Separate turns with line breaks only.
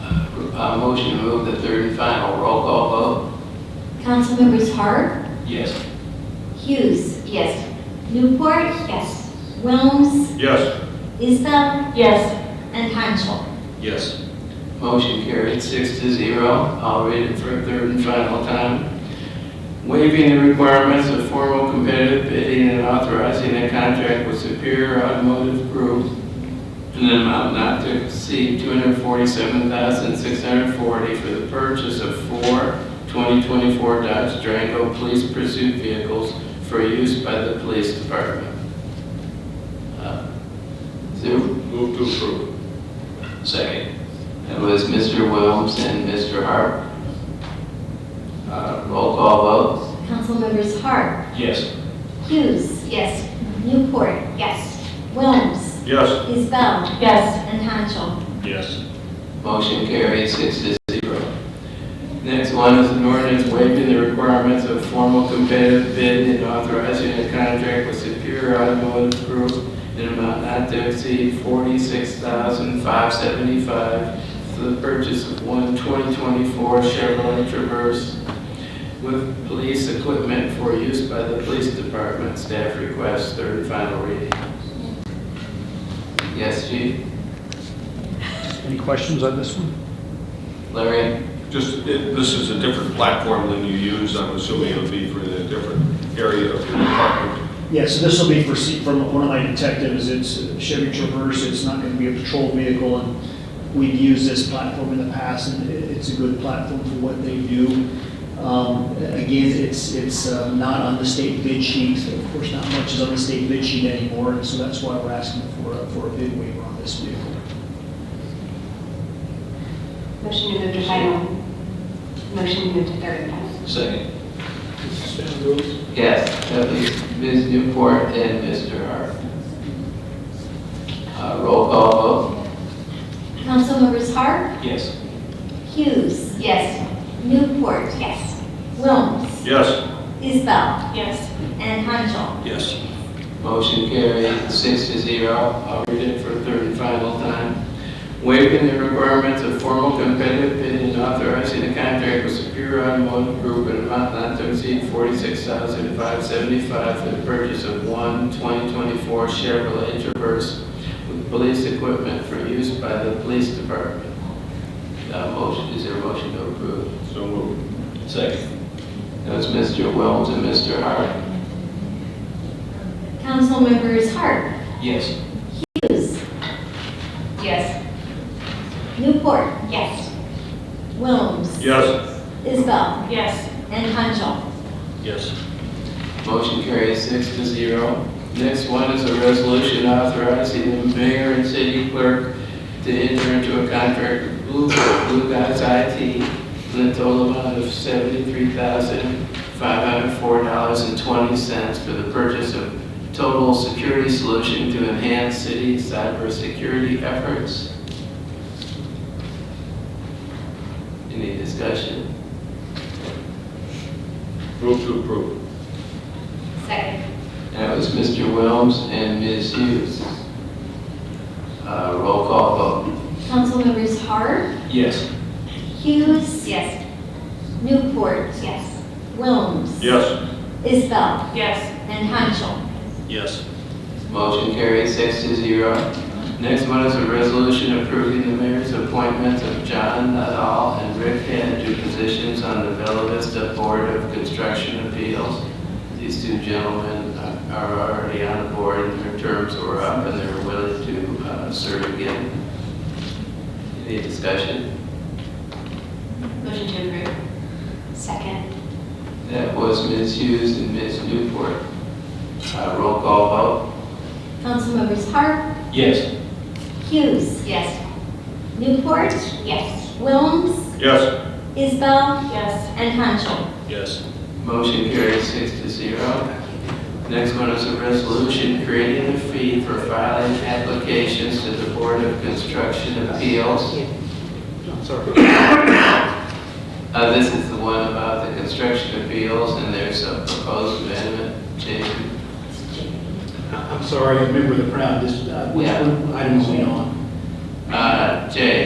uh, motion to move the third and final roll call
Councilmembers Hart,
vote? Yes.
Hughes. Yes. Newport. Yes. Wilms,
Yes.
Isbell. Yes. And Hanchel.
Yes.
Motion carried six to zero. I'll read it for a third and final time. Waiving the requirements of formal competitive bidding and authorizing a contract with Superior Automotive Group in an amount not to exceed $247,640 for the purchase of four 2024 Dodge Durango police pursuit vehicles for use by the police department. Uh, Sue?
Move to approve.
Second. That was Mr. Wilms and Mr. Harp. Uh, Roll call vote?
Councilmembers Hart,
Yes.
Hughes. Yes. Newport. Yes. Wilms,
Yes.
Isbell. Yes. And Hanchel.
Yes.
Motion carried six to zero. Next one is an ordinance waiving the requirements of formal competitive bid and authorizing a contract with Superior Automotive Group in an amount not to exceed forty-six thousand five seventy-five for the purchase of one 2024 Chevrolet Traverse with police equipment for use by the police department. Staff requests third and final reading. Yes, Chief?
Any questions on this one?
Larry?
Just, it- this is a different platform than you use, I'm assuming it would be for the different area of your department.
Yeah, so this will be for, se- from one of my detectives, it's uh, Chevy Traverse, it's not gonna be a patrol vehicle, and we've used this platform in the past, and it- it's a good platform for what they do. Um, Again, it's, it's uh, not on the state bid sheet, of course, not much is on the state bid sheet anymore, and so that's why we're asking for, a- for a bid waiver on this vehicle.
Motion to move to final. Motion to move to third and final.
Second. Yes, that was Ms. Newport and Mr. Hart. Uh, Roll call
Councilmembers Hart,
vote? Yes.
Hughes. Yes. Newport. Yes. Wilms,
Yes.
Isbell.
Yes.
And Hanchel.
Yes.
Motion carried six to zero. I'll read it for a third and final time. Waiving the requirements of formal competitive bid and authorizing a contract with Superior Automotive Group in amount not to exceed forty-six thousand five seventy-five for the purchase of one 2024 Chevrolet Traverse with police equipment for use by the police department. Uh, motion, is there a motion to approve?
So moved.
Second. That was Mr. Wilms and Mr. Hart.
Councilmembers Hart,
Yes.
Hughes.
Yes.
Newport.
Yes.
Wilms.
Yes.
Isbell.
Yes.
And Hanchel.
Yes.
Motion carries six to zero. Next one is a resolution authorizing the mayor and city clerk to enter into a contract with Blue Blue Guys IT in a total amount of seventy-three thousand, five hundred four dollars and twenty cents for the purchase of total security solution to enhance city cybersecurity efforts. Any discussion?
Move to approve.
Second.
That was Mr. Wilms and Ms. Hughes. Uh, Roll call vote.
Councilmembers Hart,
Yes.
Hughes.
Yes.
Newport.
Yes.
Wilms.
Yes.
Isbell.
Yes.
And Hanchel.
Yes.
Motion carries six to zero. Next one is a resolution approving the mayor's appointments of John Nadal and Rick Head to positions on the Bella Vista Board of Construction Appeals. These two gentlemen are already on the board, and their terms were up, and they're willing to uh, serve again. Any discussion?
Motion to approve. Second.
That was Ms. Hughes and Ms. Newport. Uh, Roll call
Councilmembers Hart,
vote? Yes.
Hughes.
Yes.
Newport.
Yes.
Wilms.
Yes.
Isbell.
Yes.
And Hanchel.
Yes.
Motion carries six to zero. Next one is a resolution creating a fee for filing applications to the Board of Construction Appeals. Uh, This is the one about the construction appeals, and there's a proposed amendment, Jason.
I- I'm sorry, I remember the crowd, this, uh, which
Yeah.
one item are we on?
Uh, Jay,